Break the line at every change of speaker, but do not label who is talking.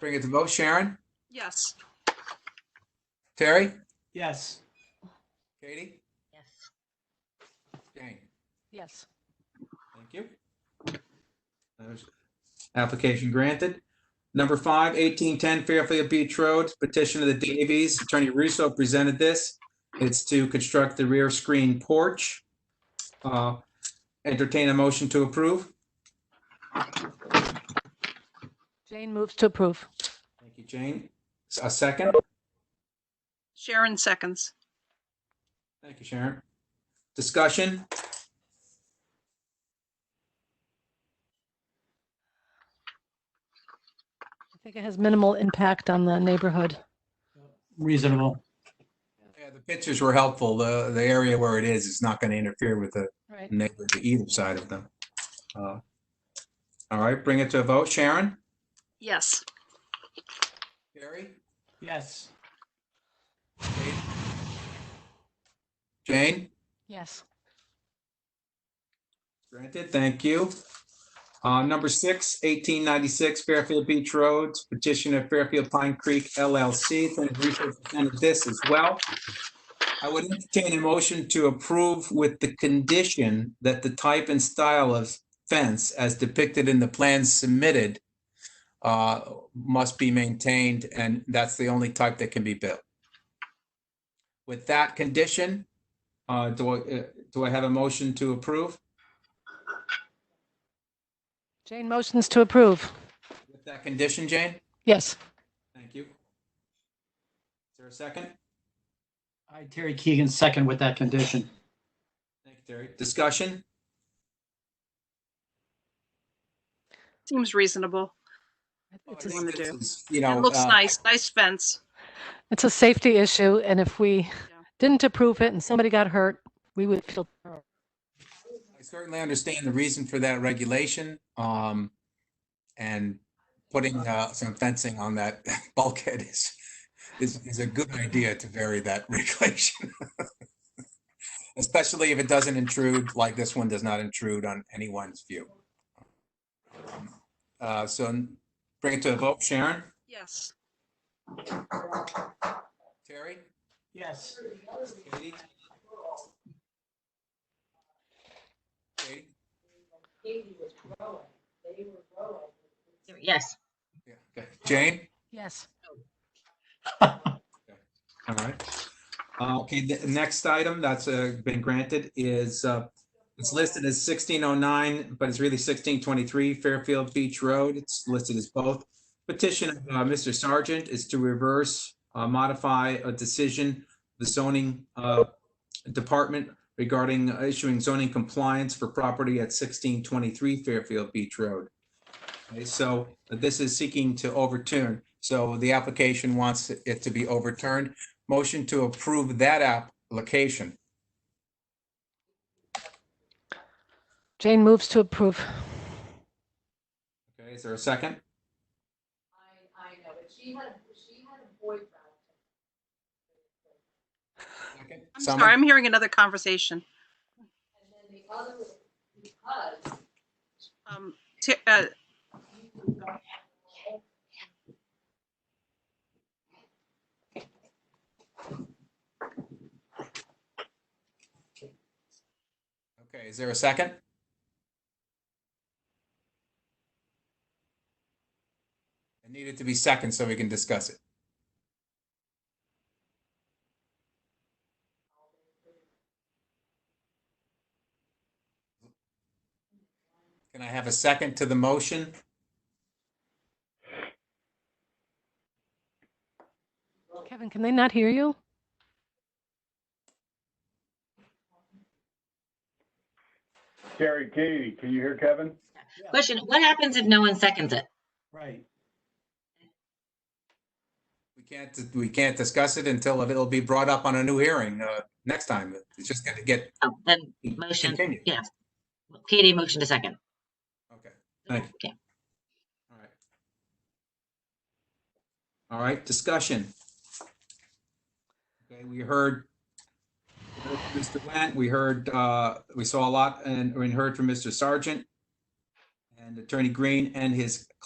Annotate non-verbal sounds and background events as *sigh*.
bring it to vote. Sharon?
Yes.
Terry?
Yes.
Katie?
Yes.
Jane?
Yes.
Thank you. That was Application granted. Number five, 1810 Fairfield Beach Road, petition of the Davies. Attorney Russo presented this. It's to construct the rear screen porch. Uh, Entertain a motion to approve.
Jane moves to approve.
Thank you, Jane. S- A second.
Sharon seconds.
Thank you, Sharon. Discussion?
I think it has minimal impact on the neighborhood.
Reasonable.
Yeah, the pictures were helpful. The, the area where it is is not going to interfere with the
Right.
neighbor to either side of them. Uh, All right, bring it to a vote. Sharon?
Yes.
Terry?
Yes.
Jane?
Yes.
Granted, thank you. Uh, number six, 1896 Fairfield Beach Road, petition of Fairfield Pine Creek LLC. Attorney Russo presented this as well. I would entertain a motion to approve with the condition that the type and style of fence as depicted in the plans submitted uh, must be maintained, and that's the only type that can be built. With that condition, uh, do I, uh, do I have a motion to approve?
Jane motions to approve.
With that condition, Jane?
Yes.
Thank you. Is there a second?
I, Terry Keegan, second with that condition.
Thank you, Terry. Discussion?
Seems reasonable.
It's
I
a,
think- wanna do.
This is, You know.
It looks
uh,
nice. Nice fence.
it's a safety issue, and if we didn't approve it and somebody got hurt, we would feel. terrible.
I certainly understand the reason for that regulation, um, and putting, uh, some fencing on that *laughs* bulkhead is, is, is a good idea to vary that *laughs* regulation. Especially if it doesn't intrude, like this one does not intrude on anyone's view. Uh, so bring it to a vote. Sharon?
Yes.
Terry?
Yes.
Katie? Katie?
Yes,
Yeah, okay. Jane?
Yes.
All right. Uh, Okay, the next item that's uh, been granted is, uh, it's listed as 1609, but it's really 1623 Fairfield Beach Road. It's listed as both. Petition of uh, Mr. Sargent is to reverse, uh, modify a decision, the zoning uh, department regarding uh, issuing zoning compliance for property at 1623 Fairfield Beach Road. Okay, so this is seeking to overturn. So the application wants it to be overturned. Motion to approve that application.
Jane moves to approve.
Okay, is there a second?
I, I know, but she had, she had a boyfriend.
Second.
I'm
Someone?
sorry. I'm hearing another conversation.
And then the other, was because
Um, Ti- uh,
Okay, is there a second? It needed to be second so we can discuss it. Can I have a second to the motion?
Kevin, can they not hear you?
Terry, Katie, can you hear Kevin?
question, what happens if no one seconds it?
Right.
We can't, we can't discuss it until it'll be brought up on a new hearing, uh, next time. It's just gonna get
Oh, then motion,
continued.
yes. Katie, motion to second.
Okay, Thank
Okay.
all right. All right, discussion. Okay, we heard we heard from Mr. Wendt, we heard, uh, we saw a lot and, and heard from Mr. Sargent and Attorney Green and his